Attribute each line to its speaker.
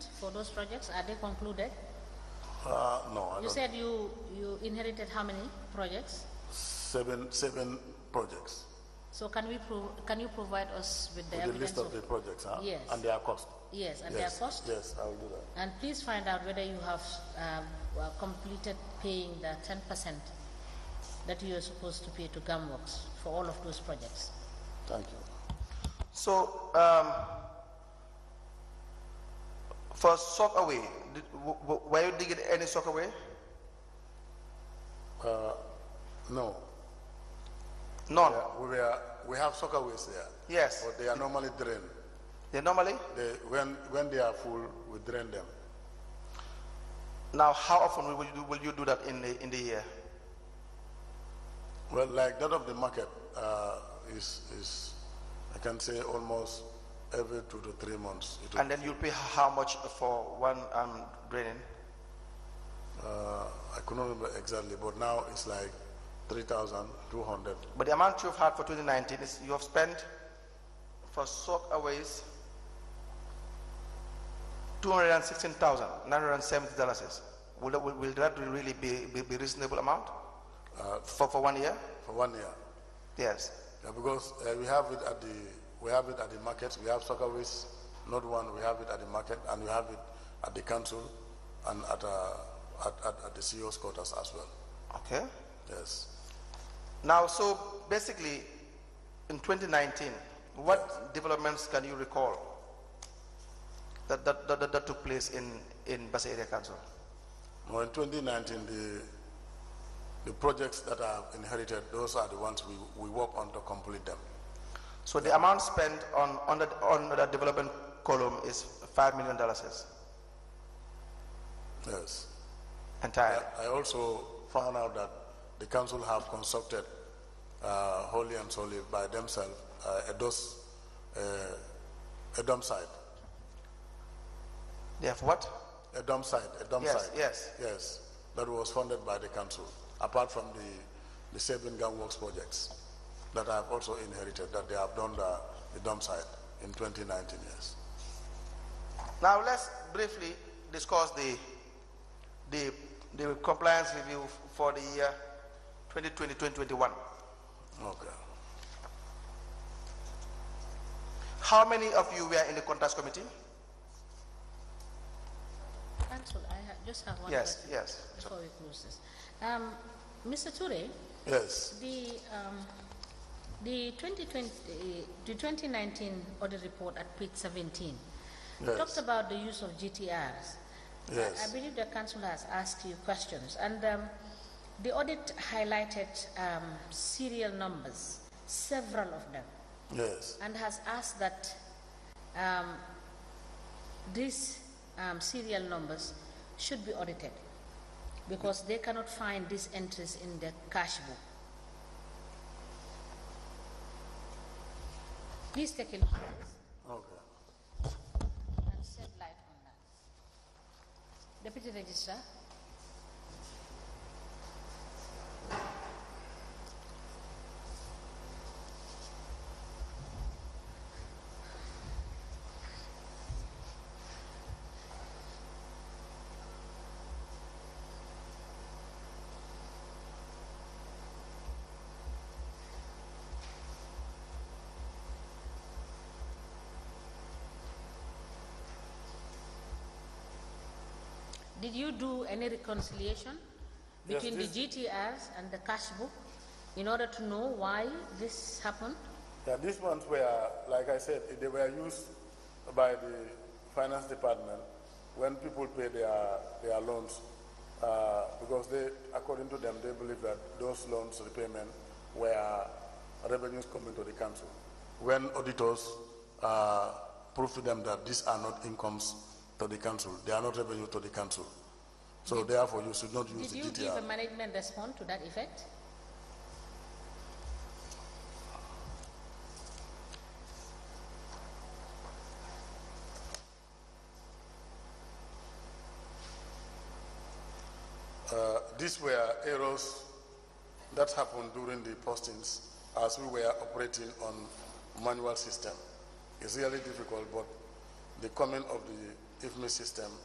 Speaker 1: for those projects? Are they concluded?
Speaker 2: Uh, no, I
Speaker 1: You
Speaker 2: don't,
Speaker 1: said you, you inherited how many projects?
Speaker 2: seven, seven projects.
Speaker 1: So can we prove, can you provide us with the
Speaker 2: The list
Speaker 1: evidence
Speaker 2: of
Speaker 1: of?
Speaker 2: the projects, huh?
Speaker 1: Yes.
Speaker 2: And their cost.
Speaker 1: Yes, and their
Speaker 2: Yes,
Speaker 1: cost?
Speaker 2: Yes, I will do that.
Speaker 1: And please find out whether you have um, well, completed paying the ten percent that you are supposed to pay to Gumworks for all of those projects.
Speaker 2: Thank you.
Speaker 3: So, um, for sock away, did, w- w- were you digging any sock away?
Speaker 2: No, Uh,
Speaker 3: None.
Speaker 2: we were, we have soccer ways there.
Speaker 3: Yes.
Speaker 2: But they are normally drained.
Speaker 3: They normally.
Speaker 2: They, when, when they are full, we drain them.
Speaker 3: Now, how often will you do, will you do that in the in the year?
Speaker 2: Well, like that of the market, uh, is, is, I can say almost every two to three months. It will-
Speaker 3: And then you'll pay how much for one um, draining?
Speaker 2: Uh, I couldn't remember exactly, but now it's like three thousand two hundred.
Speaker 3: But the amount you've had for 2019 is you have spent for sock aways 216,970 dollars. Will, that- will, will that really be, be, be reasonable amount for, for one year?
Speaker 2: for one year.
Speaker 3: Yes.
Speaker 2: Yeah, because uh, we have it at the we have it at the markets. We have soccer waste, not one. We have it at the market, and we have it at the council, and at uh, at, at, at the CEO's quarters as well.
Speaker 3: Okay.
Speaker 2: Yes.
Speaker 3: Now, so basically, in 2019, what developments can you recall that, that, that, that, that took place in, in Basa Area Council?
Speaker 2: Now in 2019, the the projects that are inherited, those are the ones we, we work on to complete them.
Speaker 3: So the amount spent on, on, the, on the development column is $5 million
Speaker 2: Yes.
Speaker 3: entirely.
Speaker 2: I also found out that the council have consulted uh, wholly and solely by themselves uh, a DOS, uh, a dump site,
Speaker 3: They have what?
Speaker 2: a dump site, a dump
Speaker 3: Yes,
Speaker 2: site.
Speaker 3: yes.
Speaker 2: Yes, that was funded by the council, apart from the, the Sabin Gang Works projects that I've also inherited, that they have done the, the dump site in 2019, yes.
Speaker 3: Now let's briefly discuss the, the, the compliance review for the year 2020, 2021.
Speaker 2: Okay.
Speaker 3: How many of you were in the contest committee?
Speaker 1: Council, I ha- just have one
Speaker 3: Yes,
Speaker 1: question
Speaker 3: yes.
Speaker 1: before we close this. Um, Mr. Ture,
Speaker 2: Yes,
Speaker 1: the, um, the 2020, the 2019 audit report at page 17
Speaker 2: Yes.
Speaker 1: talked about the use of GTRs. I-
Speaker 2: Yes.
Speaker 1: I believe the council has asked you questions, and um, the audit highlighted um, serial numbers, several of them
Speaker 2: yes,
Speaker 1: and has asked that um, these um, serial numbers should be audited because they cannot find these entries in the cash book. Please take a look at this
Speaker 2: okay.
Speaker 1: and shed light on that. Deputy Registrar, did you do any reconciliation
Speaker 2: Yes,
Speaker 1: between
Speaker 2: this-
Speaker 1: the GTRs and the cash book in order to know why this happened?
Speaker 2: Yeah, these ones were, like I said, they were used by the finance department when people pay their, their loans, uh, because they, according to them, they believe that those loans repayment were revenues coming to the council. When auditors, uh, prove to them that these are not incomes to the council, they are not revenue to the council. So therefore, you should not
Speaker 1: Did
Speaker 2: use the
Speaker 1: you give a
Speaker 2: GTR.
Speaker 1: management response to that effect?
Speaker 2: Uh, these were errors that happened during the postings as we were operating on manual system. It's really difficult, but the coming of the IFMI system